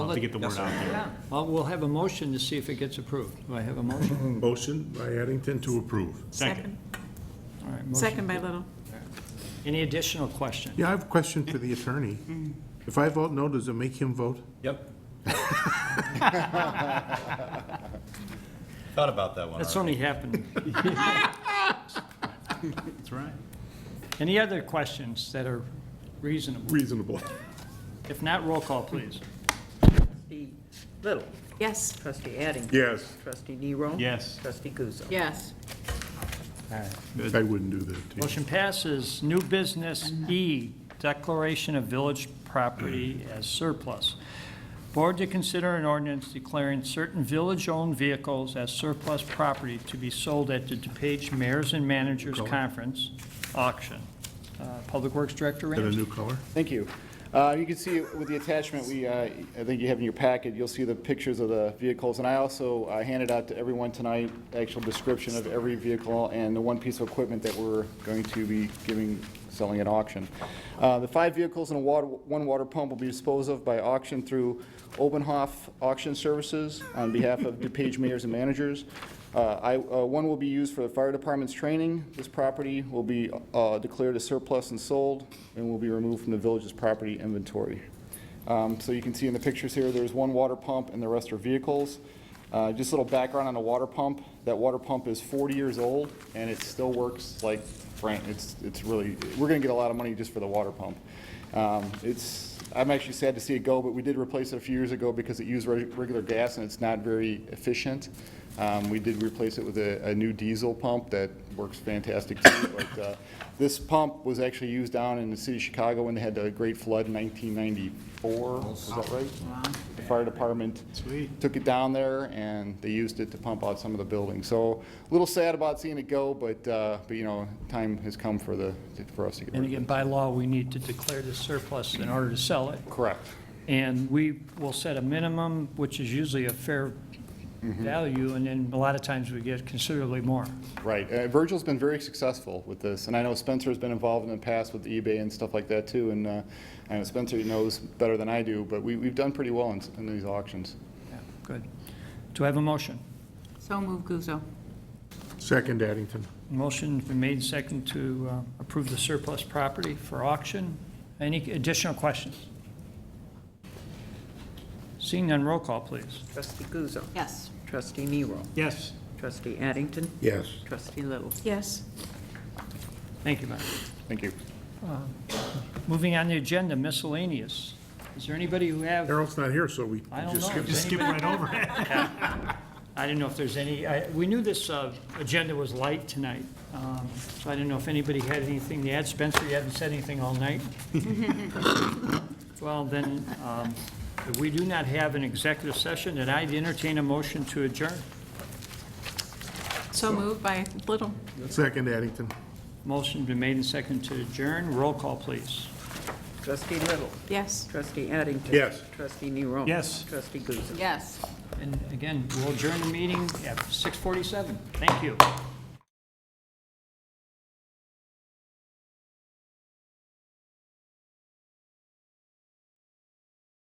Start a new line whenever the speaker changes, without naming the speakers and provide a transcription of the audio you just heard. to get the word out there.
Well, we'll have a motion to see if it gets approved. Do I have a motion?
Motion by Addington to approve.
Second.
All right, motion.
Second by Little.
Any additional questions?
Yeah, I have a question for the attorney. If I vote no, does it make him vote?
Yep. Thought about that one
That's
already.
only happened.
That's right.
Any other questions that are reasonable?
Reasonable.
If not, roll call, please.
Trustee Little,
Yes.
trustee Addington.
Yes,
Trustee Nero.
Yes.
Trustee Guzzo.
Yes.
I wouldn't do that to you.
Motion passes. New business E, declaration of village property as surplus. Board to consider an ordinance declaring certain village-owned vehicles as surplus property to be sold at the DePage Mayors and Managers Conference auction. Uh, Public Works Director
Got a
Ramsey.
new color?
Thank you. Uh, You can see with the attachment, we, uh, I think you have in your packet, you'll see the pictures of the vehicles. And I also uh, handed out to everyone tonight actual description of every vehicle and the one piece of equipment that we're going to be giving, selling at auction. Uh, The five vehicles and a water, one water pump will be disposed of by auction through Obenhoff Auction Services on behalf of DePage Mayors and Managers. Uh, I, uh, one will be used for the fire department's training. This property will be, uh, declared a surplus and sold, and will be removed from the village's property inventory. Um, so you can see in the pictures here, there's one water pump and the rest are vehicles. Uh, just a little background on the water pump. That water pump is forty years old, and it still works like Frank, it's, it's really, we're gonna get a lot of money just for the water pump. Um, it's, I'm actually sad to see it go, but we did replace it a few years ago because it used reg- regular gas and it's not very efficient. Um, we did replace it with a, a new diesel pump that works fantastic too, but, uh, this pump was actually used down in the city of Chicago when they had the great flood in nineteen ninety-four, is that right? The fire department took it down there and they used it to pump out some of the buildings. So, a little sad about seeing it go, but, uh, but you know, time has come for the, for us to get
And
rid of it.
again, by law, we need to declare the surplus in order to sell it.
Correct.
And we will set a minimum, which is usually a fair value, and then a lot of times we get considerably more.
Right. Uh, Virgil's been very successful with this, and I know Spencer's been involved in the past with eBay and stuff like that too, and uh, I know Spencer knows better than I do, but we, we've done pretty well in, in these auctions.
Yeah, Good. Do I have a motion?
So move Guzzo.
Second Addington.
Motion's been made second to uh, approve the surplus property for auction. Any additional questions? Seeing none, roll call, please.
Trustee Guzzo.
Yes.
Trustee Nero.
Yes.
Trustee Addington.
Yes.
Trustee Little.
Yes.
Thank you, Mayor.
Thank you.
Moving on the agenda, miscellaneous. Is there anybody who have,
Harold's not here, so we
I don't
just
know.
skip.
Does
Just skip right over it.
I didn't know if there's any, I- we knew this uh, agenda was light tonight, um, so I didn't know if anybody had anything to add. Spencer, you haven't said anything all night? Well, then, um, if we do not have an executive session, then I'd entertain a motion to adjourn.
So moved by Little.
Second Addington.
Motion been made and second to adjourn. Roll call, please.
Trustee Little.
Yes.
Trustee Addington.
Yes.
Trustee Nero.
Yes.
Trustee Guzzo.
Yes.
And again, we'll adjourn the meeting at 6:47. Thank you.